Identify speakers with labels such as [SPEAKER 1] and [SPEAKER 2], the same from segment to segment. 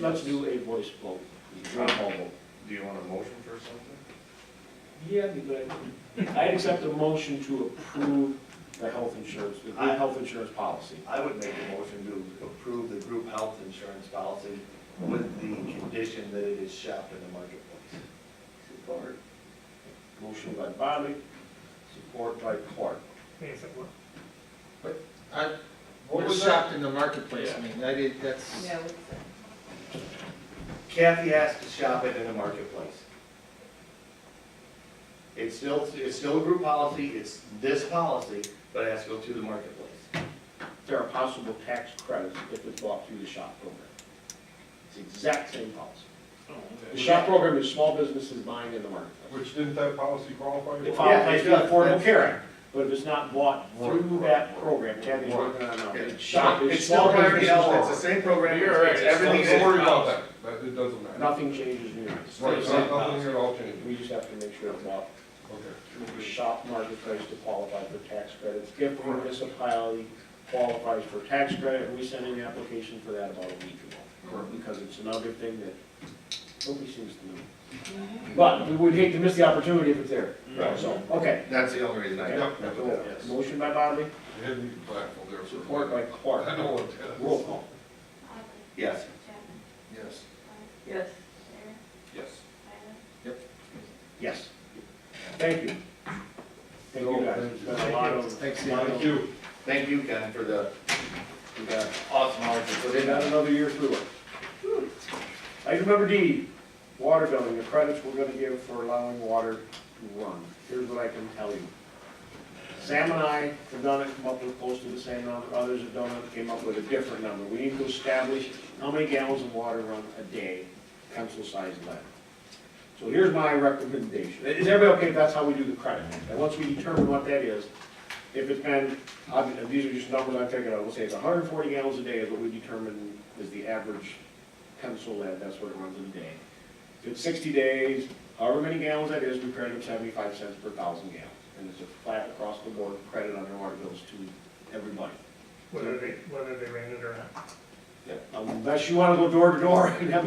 [SPEAKER 1] let's do a voice vote, roll call vote.
[SPEAKER 2] Do you want a motion for something?
[SPEAKER 1] Yeah, be good. I'd accept a motion to approve the health insurance, the group health insurance policy.
[SPEAKER 3] I would make a motion to approve the group health insurance policy with the condition that it is shopped in the marketplace.
[SPEAKER 1] Support. Motion by Bobby, support by Clark.
[SPEAKER 4] Yes, it would.
[SPEAKER 5] I, what was shopped in the marketplace, I mean, I did, that's,
[SPEAKER 6] Yeah, we-
[SPEAKER 3] Kathy asked to shop it in the marketplace. It's still, it's still a group policy, it's this policy, but it has to go to the marketplace.
[SPEAKER 1] There are possible tax credits if it's bought through the SHOP program. It's the exact same policy. The SHOP program is small businesses buying in the marketplace.
[SPEAKER 7] Which didn't that policy qualify?
[SPEAKER 1] It
[SPEAKER 7] for?
[SPEAKER 1] qualifies for the Affordable
[SPEAKER 3] that's-
[SPEAKER 1] Care Act, but if it's not bought through that program, Kathy's working on it. It's SHOP, it's small businesses.
[SPEAKER 3] It's the same program.
[SPEAKER 2] You're right.
[SPEAKER 3] It's
[SPEAKER 7] Don't
[SPEAKER 3] everything
[SPEAKER 2] Everything's-
[SPEAKER 7] worry about that, that, it doesn't matter.
[SPEAKER 1] Nothing changes in yours.
[SPEAKER 7] Right, nothing at all changes,
[SPEAKER 1] We just have to make sure it's bought
[SPEAKER 7] okay.
[SPEAKER 1] the shop marketplace to qualify for tax credits. If a municipality qualifies for tax credit, we sent in the application for that about a week ago. Because it's another thing that nobody seems to know. But we would hate to miss the opportunity if it's there.
[SPEAKER 3] Right.
[SPEAKER 1] So, okay.
[SPEAKER 3] That's the only reason I.
[SPEAKER 7] Yep, yep,
[SPEAKER 1] So,
[SPEAKER 7] yep.
[SPEAKER 1] Motion by Bodley,
[SPEAKER 7] Hidden you platform there. for a
[SPEAKER 1] support by
[SPEAKER 7] minute. I
[SPEAKER 1] Clark.
[SPEAKER 7] know what that is.
[SPEAKER 1] Roll call.
[SPEAKER 3] Yes.
[SPEAKER 5] yes.
[SPEAKER 6] yes.
[SPEAKER 7] Yes.
[SPEAKER 1] Yes. Thank you. Thank you guys. It's been a lot of, lot
[SPEAKER 5] Thanks, Ian.
[SPEAKER 1] of-
[SPEAKER 7] Thank you.
[SPEAKER 3] Thank you, Ken, for the
[SPEAKER 1] we got
[SPEAKER 3] awesome hard you put
[SPEAKER 1] They
[SPEAKER 3] in.
[SPEAKER 1] got another year through it. Item number D, water billing, the credits we're gonna give for allowing water to run. Here's what I can tell you. Sam and I have done it, come up with close to the same number, others have done it, came up with a different number. We need to establish how many gallons of water run a day, pencil-sized lead. So here's my recommendation. Is everybody okay if that's how we do the credit? And once we determine what that is, if it's been, I'm- and these are just numbers I figured out, we'll say it's hundred and forty gallons a day is what we determine is the average pencil lead, that's what it runs in a day. If it's sixty days, however many gallons that is, we credit them seventy-five cents per thousand gallons. And it's a flat across the board credit on their water bills to everybody.
[SPEAKER 4] Whether they, whether they ran it or not.
[SPEAKER 1] Um, Unless you wanna go door to door and have,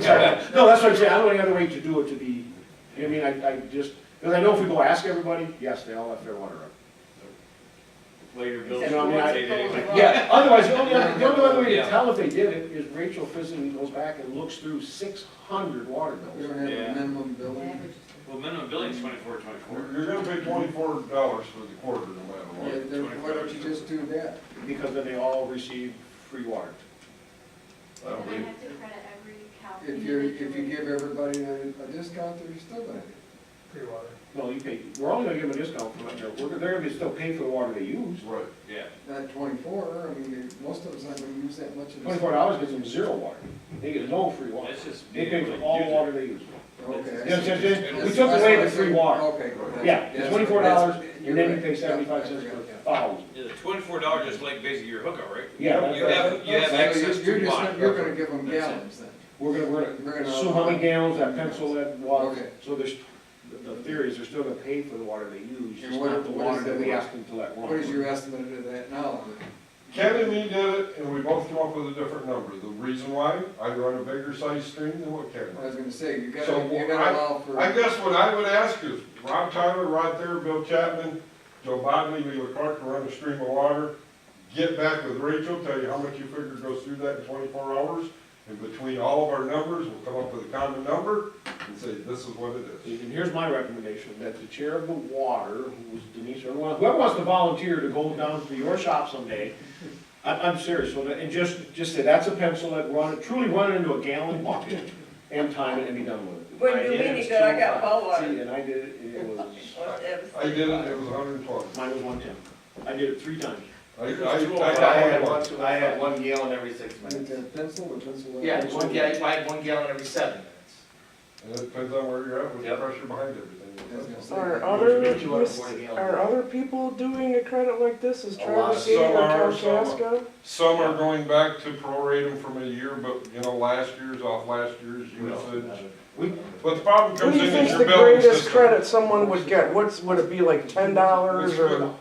[SPEAKER 1] no, that's what I'm saying, I don't know any other way to do it to be, I mean, I, I just, because I know if we go ask everybody, yes, they all have their water up.
[SPEAKER 2] Later, Bill.
[SPEAKER 1] You know, I mean, I-
[SPEAKER 6] Well,
[SPEAKER 1] Yeah, otherwise, the only, other- the only other way to tell if they did it is Rachel physically goes back and looks through six hundred water
[SPEAKER 5] We
[SPEAKER 1] bills.
[SPEAKER 5] don't have
[SPEAKER 2] Yeah.
[SPEAKER 5] a minimum
[SPEAKER 6] the
[SPEAKER 5] building.
[SPEAKER 6] average is-
[SPEAKER 2] Well, minimum billing's twenty-four, twenty-four.
[SPEAKER 7] You're gonna pay twenty-four dollars for the quarter no matter
[SPEAKER 5] Yeah,
[SPEAKER 7] what.
[SPEAKER 5] then why don't you just do that?
[SPEAKER 1] Because then they all receive free water.
[SPEAKER 7] I don't
[SPEAKER 8] And I
[SPEAKER 7] believe,
[SPEAKER 8] have to credit every account.
[SPEAKER 5] If you, if you
[SPEAKER 8] individually.
[SPEAKER 5] give everybody a, a discount, they're still gonna
[SPEAKER 4] Free water.
[SPEAKER 1] Well, you pay, we're only gonna give them a discount for it, they're, they're gonna be still paying for the water they use.
[SPEAKER 7] right,
[SPEAKER 2] Yeah.
[SPEAKER 5] Not twenty-four, I mean, they- most of us aren't gonna use that much of this.
[SPEAKER 1] Twenty-four dollars gets them zero water, they get no free water,
[SPEAKER 2] That's just.
[SPEAKER 1] they
[SPEAKER 2] being
[SPEAKER 1] pay
[SPEAKER 2] able
[SPEAKER 1] for
[SPEAKER 2] to
[SPEAKER 1] all
[SPEAKER 2] do that.
[SPEAKER 1] water they use.
[SPEAKER 5] Okay. I
[SPEAKER 1] You know,
[SPEAKER 5] see.
[SPEAKER 1] just- just- we
[SPEAKER 5] That's-
[SPEAKER 1] took
[SPEAKER 5] that's
[SPEAKER 1] away
[SPEAKER 5] what
[SPEAKER 1] the
[SPEAKER 5] I
[SPEAKER 1] free
[SPEAKER 5] said.
[SPEAKER 1] water.
[SPEAKER 5] Okay. that's-
[SPEAKER 1] Yeah, it's
[SPEAKER 5] that's-
[SPEAKER 1] twenty-four dollars,
[SPEAKER 5] that's-
[SPEAKER 1] and then you
[SPEAKER 5] you're
[SPEAKER 1] pay
[SPEAKER 5] right.
[SPEAKER 1] seventy-five
[SPEAKER 5] Yeah, I
[SPEAKER 1] cents per
[SPEAKER 5] forgot that.
[SPEAKER 1] thousand.
[SPEAKER 2] Yeah, the twenty-four dollars is like basically your hookup, right?
[SPEAKER 1] Yeah,
[SPEAKER 2] You
[SPEAKER 1] that's-
[SPEAKER 2] have, you have
[SPEAKER 5] So
[SPEAKER 2] access
[SPEAKER 5] you're- you're
[SPEAKER 2] to
[SPEAKER 5] just
[SPEAKER 2] water.
[SPEAKER 5] gonna- You're gonna give them
[SPEAKER 2] That's it.
[SPEAKER 5] gallons then.
[SPEAKER 1] We're gonna, we're
[SPEAKER 5] We're
[SPEAKER 1] gonna
[SPEAKER 5] gonna-
[SPEAKER 1] assume how many gallons that pencil lead water,
[SPEAKER 5] Okay.
[SPEAKER 1] so there's, the the theory is they're still gonna pay for the water they use,
[SPEAKER 5] And
[SPEAKER 1] just
[SPEAKER 5] what-
[SPEAKER 1] not the
[SPEAKER 5] what
[SPEAKER 1] water
[SPEAKER 5] is
[SPEAKER 1] that
[SPEAKER 5] the-
[SPEAKER 1] we ask them to let
[SPEAKER 5] What is
[SPEAKER 1] run.
[SPEAKER 5] your estimate of that now?
[SPEAKER 7] Ken and me did it, and we both came up with a different number, the reason why, I run a bigger sized stream than what Ken runs.
[SPEAKER 5] I was gonna say, you gotta,
[SPEAKER 7] So,
[SPEAKER 5] you
[SPEAKER 7] I-
[SPEAKER 5] gotta allow for.
[SPEAKER 7] I guess what I would ask is, Rob Tyler, Rod Thayer, Bill Chapman, Joe Bodley, Leela Clark, to run a stream of water, get back with Rachel, tell you how much you figure goes through that in twenty-four hours, and between all of our numbers, we'll come up with a common number, and say, this is what it is.
[SPEAKER 1] And here's my recommendation, that the chair of the water, who's Denise, or whoever whoever wants to volunteer to go down to your shop someday, I'm, I'm serious, so that- and just, just say, that's a pencil lead, run it, truly run it into a gallon bucket, and time it and be done with it.
[SPEAKER 9] When
[SPEAKER 1] I
[SPEAKER 9] you
[SPEAKER 1] did,
[SPEAKER 9] mean
[SPEAKER 1] it's
[SPEAKER 9] it, good, I
[SPEAKER 1] two
[SPEAKER 9] got
[SPEAKER 1] oh five.
[SPEAKER 9] ball water.
[SPEAKER 1] See, and I did it, and it was,
[SPEAKER 7] I did it, it was hundred and twenty.
[SPEAKER 1] mine was one ten, I did it three times.
[SPEAKER 7] I,
[SPEAKER 3] I
[SPEAKER 7] I, I
[SPEAKER 3] had
[SPEAKER 7] had
[SPEAKER 3] one,
[SPEAKER 7] one.
[SPEAKER 3] I had one gallon every six
[SPEAKER 5] With
[SPEAKER 3] minutes.
[SPEAKER 5] a pencil or pencil? lead?
[SPEAKER 3] Yeah, one gallon, I had one gallon every seven minutes.
[SPEAKER 7] And it depends on where you're at, with the
[SPEAKER 3] Yep.
[SPEAKER 7] pressure behind
[SPEAKER 5] I was gonna
[SPEAKER 7] everything.
[SPEAKER 5] say-
[SPEAKER 4] Or
[SPEAKER 1] Which
[SPEAKER 4] other,
[SPEAKER 1] makes you
[SPEAKER 4] mis-
[SPEAKER 1] afford a gallon.
[SPEAKER 4] are other people doing a credit like this? Is
[SPEAKER 7] A lot.
[SPEAKER 4] Travis City
[SPEAKER 7] Some
[SPEAKER 4] or
[SPEAKER 7] are, some are.
[SPEAKER 4] Kalkaska?
[SPEAKER 7] Some are going back to prorate them from a year, but, you know, last year's off last year's usage.
[SPEAKER 1] We,
[SPEAKER 7] But the problem
[SPEAKER 4] What
[SPEAKER 7] comes
[SPEAKER 4] do
[SPEAKER 7] in
[SPEAKER 4] you
[SPEAKER 7] is
[SPEAKER 4] think's the
[SPEAKER 7] your billing
[SPEAKER 4] greatest
[SPEAKER 7] system.
[SPEAKER 4] credit someone would get? What's, would it be like ten dollars or?